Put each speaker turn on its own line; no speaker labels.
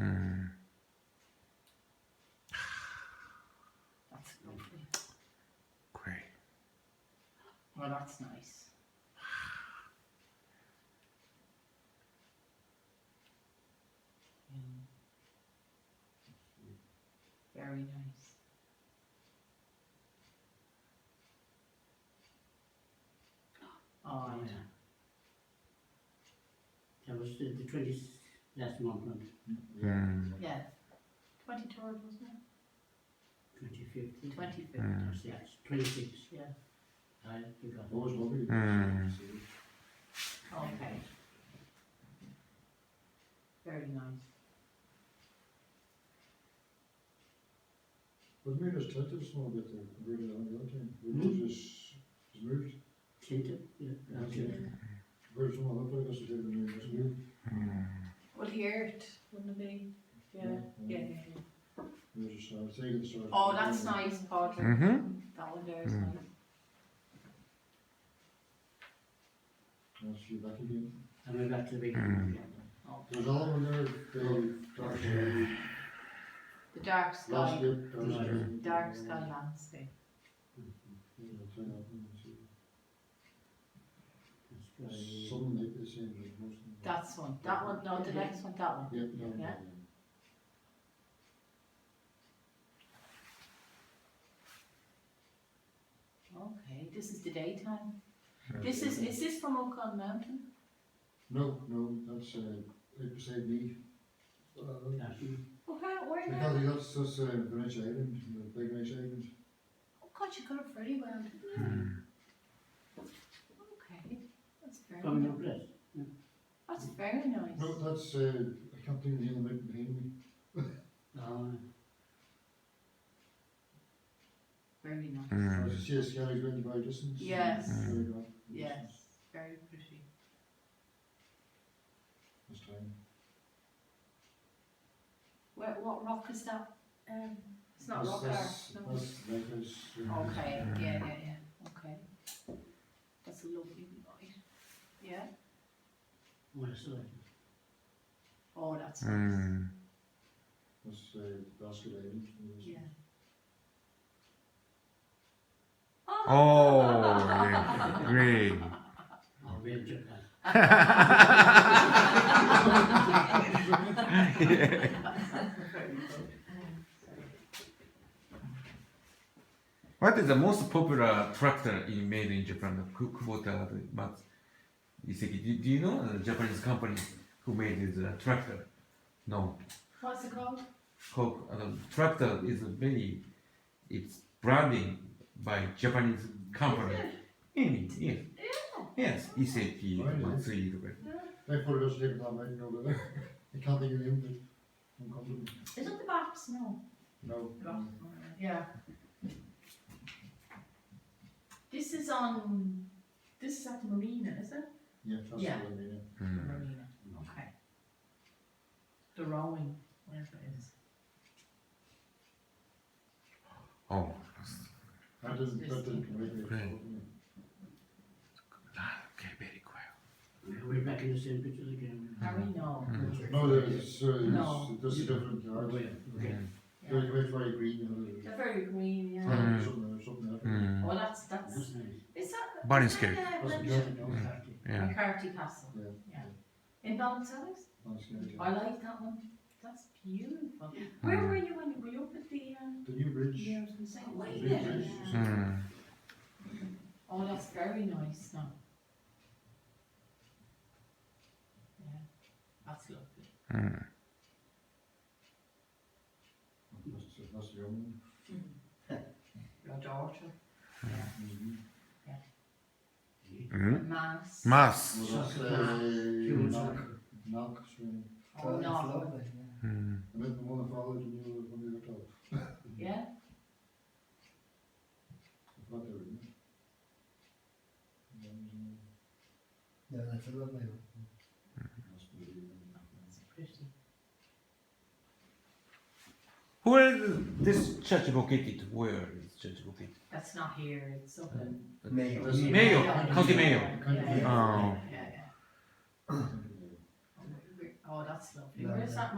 Mm.
That's lovely.
Great.
Well, that's nice. Yeah. Very nice. Oh,
Oh,
yeah.
yeah. That was the, the twenty, last month, not
Mm.
Yeah. Twenty-third, wasn't it?
twenty-fifth.
Twenty-fifth.
Mm.
Yes, twenty-six.
Yeah.
I think I was,
Those lovely.
Mm.
Okay. Very nice.
What made us tend to small bit there compared to the other team? We
Hmm?
was just, just moved.
Clinton, yeah, uh, Clinton.
Where's some other players that didn't move? Just moved.
Mm.
Well, the eight, wouldn't it be? Yeah, yeah, yeah. yeah.
We just started taking the start.
Oh, that's nice, Padraig.
Mhm.
That one there is
Mm.
nice.
Let's see back again.
I went back to the big,
Mm.
yeah.
Oh,
There's all in there, they dark sky,
The dark sky,
last bit, dark sky.
dark sky landscape.
Yeah, it's, uh, it's, uh,
That's very-
Some like the same, like most of them.
That's one, that one, no, the next one, that one.
Yeah, no, no,
Yeah.
no.
Okay, this is the daytime. This is, is this from Oakland Mountain?
No, no, that's, uh, like beside me. Uh,
Yeah.
Okay, where now?
Because that's, that's, uh, Greenwich Island, the big Greenwich Island.
Oh God, you got it very well, didn't you?
Mm.
Okay, that's very
Coming up
nice.
less.
That's very nice.
No, that's, uh, I can't think of the name of it behind me.
Uh,
Very nice.
I
Mm.
was just scaling going by distance.
Yes.
There we go.
Yes, very pretty.
This time.
Where, what rock is that? Um, it's not
That's-
rock there.
that's-
no.
That's Lighthouse. uh,
Okay, yeah, yeah, yeah, okay. That's a lovely night. Yeah,
what is it?
oh, that's nice.
Mm.
That's, uh, Basket Island.
Yeah.
Oh, yeah. great.
Oh, we had to-
What is the most popular tractor in made in Japan? The Ku- Kubota, the Mat- Iseki. Do, do you know the Japanese company who made this uh, tractor? No.
What's it called?
Ko- uh, tractor is a very, it's branding by Japanese company. Mm, yes. Yes, Iseki,
Right.
Matsui,
Thankfully, it doesn't take that much over there. I can't think of the name of it. I'm confident.
Is it the Baps? No.
No.
Yeah. This is on, this is at the marina, is it?
Yeah, that's
Yeah.
what I mean.
The
Mm.
marina, okay. The rowing, whatever it is.
Oh,
That didn't, that didn't come with me.
Great. Ah, okay, very quiet.
We're back in the same pictures
Mm.
again.
Are we? No.
No, there's, uh,
No.
there's, there's a different
Oh,
yard.
yeah, okay.
Yeah.
Very, very, very green. you know, there's-
They're very green, yeah.
Mm.
Something, something else.
Mm.
Oh, that's, that's,
That's nice.
is that?
Bunny
is that, uh,
Wasn't
Bunny-
Jordan, no,
Yeah.
Carty.
Yeah.
McCarthy Castle.
Yeah.
In Ballinasloe?
That's good, yeah.
I like that one. That's beautiful. Where
Mm.
were you when you were you up at the um
The new bridge.
yeah, I was gonna say, way
Big
there,
bridge.
yeah.
Mm.
Oh that's very nice now. Yeah. That's lovely.
Mm.
That's, that's the only one.
Your daughter.
Mhm.
Hmm.
Mm.
Mass.
Mass.
Well, that's,
Human
uh, knock,
soccer.
knock swing.
Oh no.
Mm.
I met the one that followed the new one we were told.
Yeah?
I thought they were new. And,
Yeah, that's a lovely one.
uh, that's the, uh,
That's pretty.
Where is this church located? Where is church located?
That's not here, it's up in
Mayo.
That's-
Mayo, County Mayo.
Yeah, yeah, yeah,
Oh.
yeah, yeah.
County Mayo.
Oh, that's lovely.
Lovely.
Where's that